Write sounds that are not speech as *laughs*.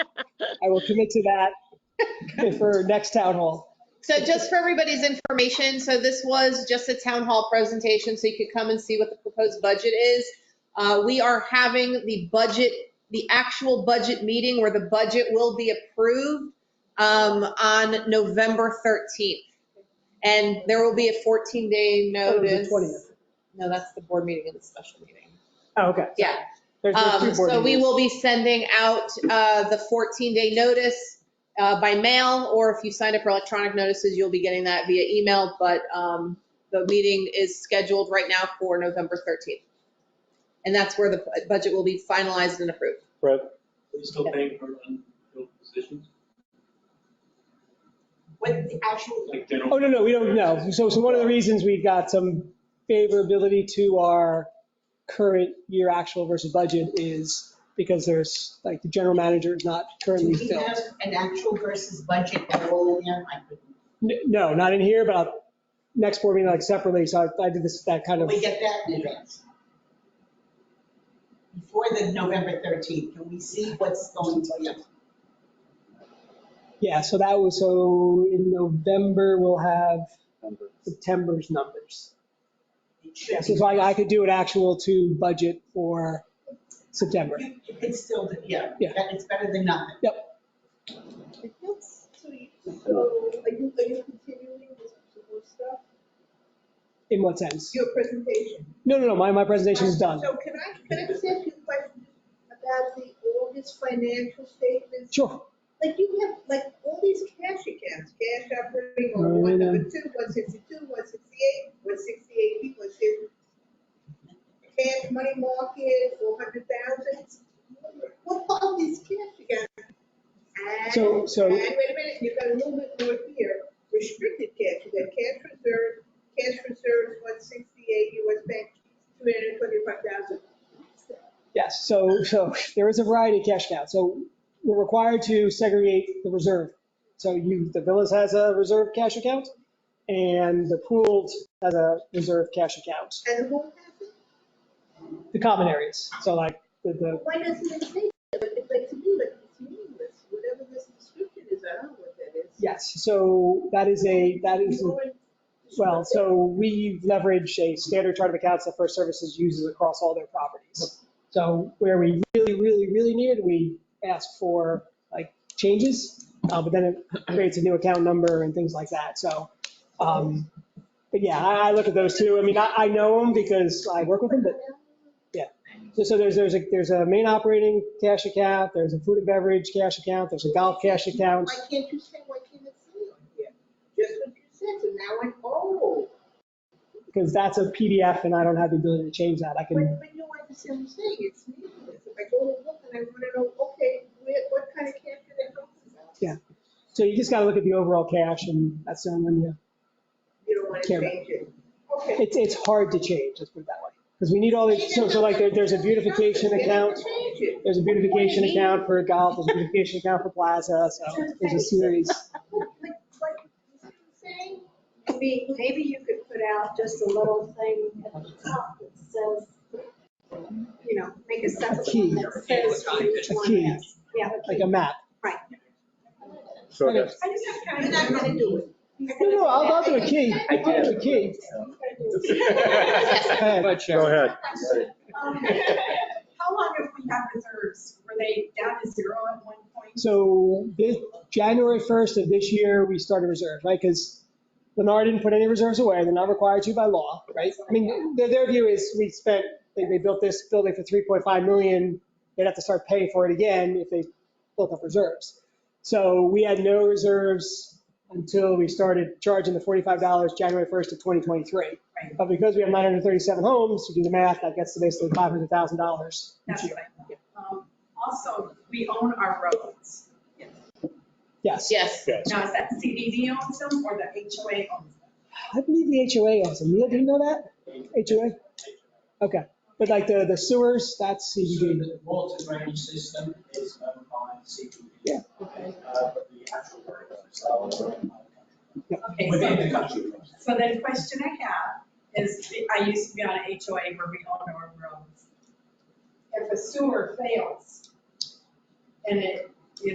I will commit to *laughs* that for next town hall. So just for everybody's information, so this was just a town hall presentation, so you could come and see what the proposed budget is. Uh, We are having the budget, the actual budget meeting where the budget will be approved um, on November 13th. And there will be a 14-day Oh, it was the notice. 20th. No, that's the board meeting and the special meeting. Oh, okay. Yeah. There's there's two Um, board So we meetings. will be sending out uh, the 14-day notice uh, by mail, or if you sign up for electronic notices, you'll be getting that via email. But um, the meeting is scheduled right now for November 13th. And that's where the budget will be finalized and approved. Are you still paying for unfilled positions, With the actual, like general? Oh, no, no, we don't know. So, so one of the reasons we got some favorability to our current year actual versus budget is because there's, like, the general manager is not do currently we filled. have an actual versus budget that will in there? Like, N- No, not in here, but I'll- next board meeting, like, separately, so I- I did this, that kind Can of, we get that in advance? Before the November 13th, can we see what's going to be? yeah, so that was, so in November, we'll have September's numbers. It should Yeah, so be- so I I could do an actual to budget for September. It's still, yeah, Yeah. that it's better than nothing. So you- so are you, are you continuing this Google stuff? In what sense? Your presentation? No, no, no, my, my presentation is done. So can I, can I just ask you a question about the August financial statements? Sure. Like you have, like all these cash accounts, cash operating Oh, I on one know. number two, one sixty-two, one sixty-eight, one sixty-eight, one sixty. Cash money market, four hundred thousand. What are all these cash accounts? And- So- so- And wait a minute, you've got a little bit more here, restricted cash, you got cash reserve, cash reserves, one sixty-eight, US Bank, two hundred and twenty-five thousand. Yes, so, so there is a variety of cash accounts. So we're required to segregate the reserve. So you, the Villas has a reserve cash account and the pooled has a reserve cash account, And who has it? the common areas. So like the, the, Why doesn't it say, that? Like, like to me, like, it's meaningless, whatever this description is, I don't know what that is. yes, so that is a, that is, You already- well, so we leverage a standard chart of accounts that First Services uses across all their properties. So where we really, really, really need it, we ask for like changes, uh, but then it creates a new account number and things like that, so. um, But yeah, I, I look at those two. I mean, I, I know them because I work with them, but yeah. So, so there's, there's a, there's a main operating cash account, there's a food and beverage cash account, there's a golf cash account. Why can't you say, why can't it say on here? Just what you said, so now I'm, oh, Because that's a PDF and I don't have the ability to change that. I but, can, but you understand what I'm saying, it's meaningless. If I go to look and I wanna know, okay, where, what kind of cash are they talking about? Yeah. so you just gotta look at the overall cash and that's the only one you, You don't wanna Camera. change it. Okay. it's, it's hard to change, let's put it that way. Because we need all the, so, so like there- there's a beautification They don't account. change it. There's a beautification account for golf, there's a beautification account for plaza, so there's a series. Like, like, you see what I'm saying? Maybe, maybe you could put out just a little thing at the top that says, you know, make a separate one that says who each A one key. is. Yeah. like a map. Right. So Okay. that's, I just have time. You're not gonna do it. No, no, I'll I'll do a key. I do a key. Go ahead. go ahead. Um, *laughs* How long have we had reserves? Were they down to zero at one point? So this, January 1st of this year, we started reserves, right? Because Lennar didn't put any reserves away. They're not required to by law, right? I mean, their, their view is we spent, they, they built this building for 3.5 million. They'd have to start paying for it again if they built up reserves. So we had no reserves until we started charging the $45 January 1st of 2023. But because we have 937 homes, you do the math, that gets to basically $500,000 each That's year. right. Um, Also, we own our roads. Yes. Yes. Now, is that CDD owns them or the HOA owns them? I believe the HOA owns them. Neil, do you know that? HOA? Okay, but like the, the sewers, that's CBD. The water drainage system is owned by CPB. Yeah. Uh, But the actual roads are owned by Okay, the country. Within the so- country. So then the question I have is, I used to be on a HOA where we own our roads. If a sewer fails and it